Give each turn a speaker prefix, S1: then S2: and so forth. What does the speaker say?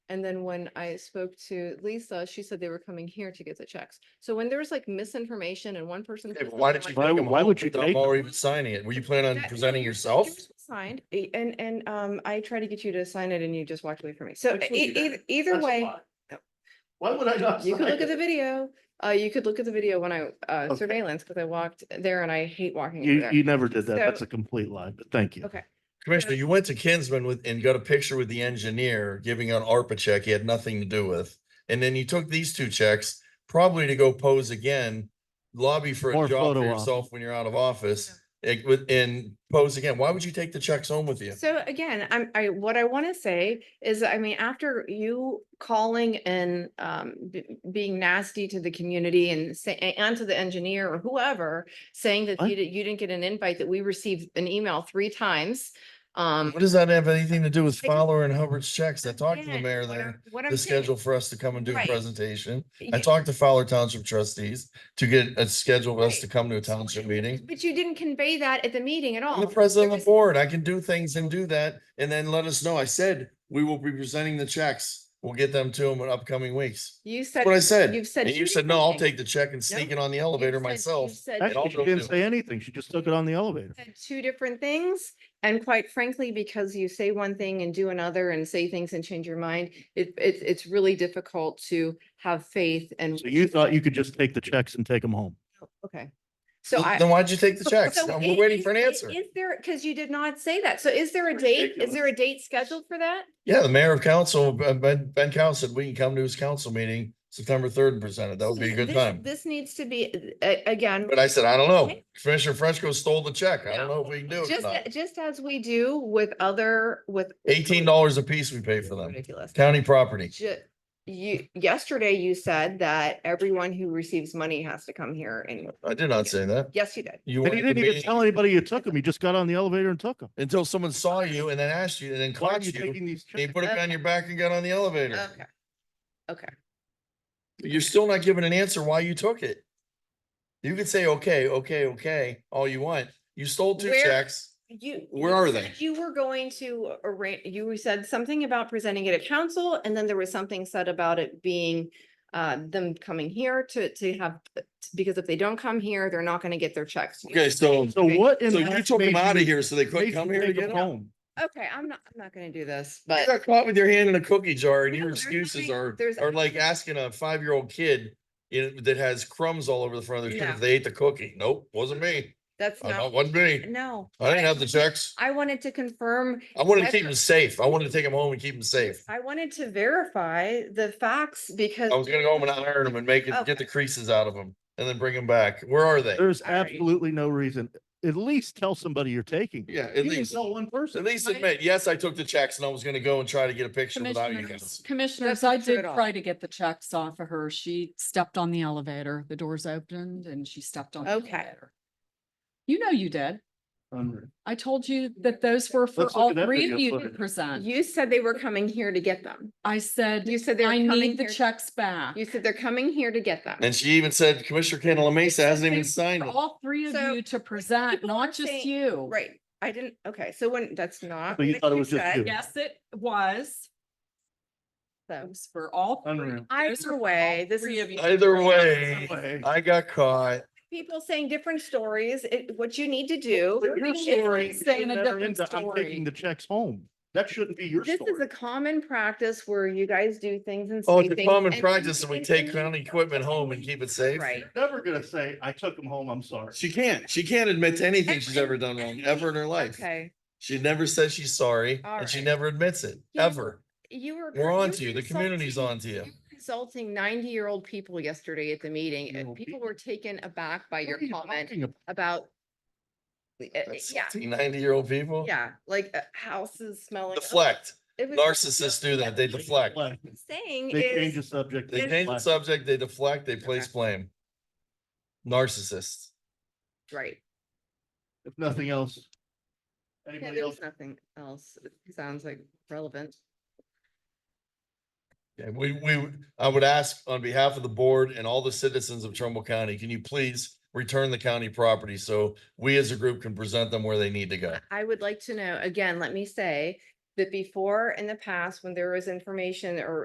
S1: And then when I spoke to Lisa, she said they were coming here to get the checks. So when there's like misinformation and one person.
S2: Okay,
S1: says
S2: but Why did
S1: something
S2: you?
S1: like-
S2: take
S3: Why-
S2: them
S3: why
S2: all
S3: would you
S2: without
S3: take
S2: Mauer
S3: them?
S2: even signing it? Were you planning on
S1: That-
S2: presenting yourself?
S1: Here's what's Signed, e- and, and, um, I try to get you to sign it and you just walked away from me. So
S4: Which would
S1: e-
S4: be better.
S1: e- either
S4: That's
S1: way,
S4: why. Why would I not?
S1: you could
S4: sign
S1: look at the
S4: it?
S1: video. Uh, you could look at the video when I, uh,
S3: Okay.
S1: surveillance, because I walked there and I hate walking over
S3: You,
S1: there.
S3: you never did that.
S1: So-
S3: That's a complete lie, but thank you.
S1: Okay.
S2: Commissioner, you went to Kinsman with, and got a picture with the engineer giving an ARPA check he had nothing to do with. And then you took these two checks, probably to go pose again, lobby for
S3: Or
S2: a job for
S3: photo op.
S2: yourself when you're out of office. eh, with- and pose again. Why would you take the checks home with you?
S1: So again, I'm, I, what I want to say is, I mean, after you calling and, um, b- being nasty to the community and say, a- and to the engineer or whoever, saying that
S3: What?
S1: you didn't, you didn't get an invite, that we received an email three times. Um.
S2: What does that have anything to do
S1: I
S2: with
S1: just-
S2: Fowler and Hubbard's checks? I talked to the
S1: again,
S2: mayor
S1: what
S2: there,
S1: I'm- what I'm
S2: the
S1: saying-
S2: schedule for us to come and do a
S1: Right.
S2: presentation. I
S1: Yeah,
S2: talked to Fowler Township trustees to get a schedule of us
S1: Right. Oh,
S2: to come to a township meeting.
S1: But you didn't convey that at the meeting at all.
S2: I'm the
S1: There
S2: president of
S1: was-
S2: the board. I can do things and do that and then let us know. I said, we will be presenting the checks. We'll get them to them in upcoming weeks.
S1: You said.
S2: That's what I said.
S1: You've said.
S2: And you
S1: two
S2: said, no, I'll
S1: different
S2: take the check and sneak
S1: Nope.
S2: it on the
S1: things.
S2: elevator
S1: You've said-
S2: myself.
S1: you've said
S2: I'll
S3: Actually, she
S2: go do
S3: didn't
S2: it.
S3: say anything. She just took it on the elevator.
S1: said two different things and quite frankly, because you say one thing and do another and say things and change your mind, it, it's, it's really difficult to have faith and.
S3: So you thought you could just take the checks and take them home.
S1: Okay. So I.
S2: Then why'd you take the checks?
S1: so
S2: We're
S1: i-
S2: waiting
S1: is-
S2: for an
S1: i-
S2: answer.
S1: Is there, because you did not say that. So is there a date? Is there a date scheduled for that?
S2: Yeah, the mayor of council, uh, Ben, Ben Cow said we can come to his council meeting September third and present it. That would be a good
S1: This-
S2: time.
S1: This needs to be, a- again,
S2: But I said, I don't know.
S1: Okay.
S2: Commissioner Fresco stole the check. I don't
S1: No.
S2: know if we can do it. or
S1: just,
S2: not.
S1: just as we do with other, with.
S2: Eighteen dollars a piece we pay for them.
S1: Ridiculous.
S2: County property.
S1: Ju- You, yesterday you said that everyone who receives money has to come here and,
S2: I did not say that.
S1: yes, you did.
S2: You
S3: And
S2: wanted
S3: you
S2: the
S3: didn't even
S2: meeting-
S3: tell anybody you took them. You just got on the elevator and took them.
S2: until someone saw you and then asked you and then
S3: Why are
S2: caught
S3: you
S2: you.
S3: taking these
S2: They
S3: checks?
S2: put it on your back and got on the elevator.
S1: Okay. Okay.
S2: You're still not giving an answer why you took it. You could say, okay, okay, okay, all you want. You stole two
S1: Where-
S2: checks.
S1: You.
S2: Where
S1: you
S2: are
S1: said
S2: they?
S1: You were going to arrange, you said something about presenting it at council and then there was something said about it being uh, them coming here to, to have, because if they don't come here, they're not gonna get their checks.
S2: Okay, so, so
S3: So what in?
S2: you
S3: that
S2: took them
S3: made
S2: out of
S3: you-
S2: here so they couldn't
S3: made
S2: come
S3: you
S2: here to
S3: take 'em
S2: get 'em?
S3: home?
S1: Okay, I'm not, I'm not gonna do this,
S2: You
S1: but.
S2: got caught with your hand in a cookie jar and
S1: No,
S2: your
S1: there's
S2: excuses
S1: nothing-
S2: are,
S1: there's-
S2: are like asking a five-year-old kid you know, that has crumbs all over the front of their shirt
S1: No.
S2: if they ate the cookie. Nope, wasn't me.
S1: That's
S2: Uh, no,
S1: not,
S2: wasn't me.
S1: no.
S2: I didn't have the checks.
S1: I wanted to confirm
S2: I wanted to keep
S1: Whether-
S2: them safe. I wanted to take them home and keep them safe.
S1: I wanted to verify the facts because.
S2: I was gonna go home and iron them and make it, get the creases out of them and then bring them back. Where are they?
S3: There's
S1: All right.
S3: absolutely no reason. At least tell somebody you're taking. 'em.
S2: Yeah, at
S3: You didn't
S2: least,
S3: tell one
S2: at
S3: person.
S2: least admit, yes, I took the checks and I was gonna go and try to get a picture without you guys.
S5: Commissioners, commissioners,
S1: That's not
S5: I
S1: true
S5: did
S1: at all.
S5: try to get the checks off of her. She stepped on the elevator, the doors opened and she stepped on. the
S1: Okay.
S5: elevator. You know you did.
S3: Unreal.
S5: I told you that those were for
S3: Let's look
S5: all
S3: at that
S5: three of
S3: video
S5: you to
S3: footage.
S5: present.
S1: You said they were coming here to get them.
S5: I said,
S1: You said they were
S5: I
S1: coming
S5: need the
S1: here.
S5: checks back.
S1: You said they're coming here to get them.
S2: And she even said Commissioner Cantala Mesa hasn't even
S5: They-
S2: signed
S5: For
S2: it.
S5: all three of
S1: So,
S5: you to present,
S1: people are
S5: not just
S1: saying-
S5: you.
S1: Right, I didn't, okay, so when, that's not.
S3: So you
S1: what
S3: thought it was just
S1: said,
S3: you.
S5: Yes, it was. It
S1: so.
S5: was For all. three.
S3: Unreal.
S5: Those are
S1: Either
S5: for all
S1: way, this
S5: three
S1: is
S5: of you to
S2: Either
S5: present.
S2: way,
S3: Way.
S2: I got caught.
S1: people saying different stories, it, what you need to do.
S3: But Your
S5: It's
S3: story. you
S5: like saying
S3: shouldn't
S5: a
S3: enter
S5: different
S3: into, I'm
S5: story."
S3: taking the checks home. That shouldn't be your
S1: This is a
S3: story.
S1: common practice where you guys do things and.
S2: Oh,
S1: say
S2: it's a
S1: things
S2: common
S1: and-
S2: practice and we take county
S1: and-
S2: equipment home and keep it safe.
S1: Right.
S3: Never gonna say, I took them home, I'm sorry.
S2: She can't, she can't admit to anything she's ever done wrong, ever in her life.
S1: Okay,
S2: She never says she's sorry and she
S1: Alright.
S2: never admits it,
S1: Yeah.
S2: ever.
S1: you were.
S2: We're on to you.
S1: were
S2: The community's
S1: insulting-
S2: on to you.
S1: you were Insulting ninety-year-old people yesterday at the meeting, and
S3: Well,
S1: people
S3: people-
S1: were taken aback by
S3: What
S1: your
S3: are you
S1: comment
S3: talking
S1: about.
S3: about?
S1: uh, uh, Yeah,
S2: year old people.
S1: yeah, like uh, houses smelling.
S2: Deflect.
S1: It was-
S2: Narcissists do that. They deflect.
S3: Black.
S1: what I'm Saying
S3: They change the
S1: is,
S3: subject.
S2: They
S1: It's-
S2: change the
S3: black.
S2: subject, they deflect, they place blame. Narcissists.
S1: right,
S3: If nothing else.
S1: yeah,
S3: Anybody else?
S1: there's nothing else, that sounds like relevant.
S2: Yeah, we, we, I would ask on behalf of the board and all the citizens of Trumbull County, can you please return the county property so we as a group can present them where they need to go?
S1: I would like to know, again, let me say that before in the past, when there was information or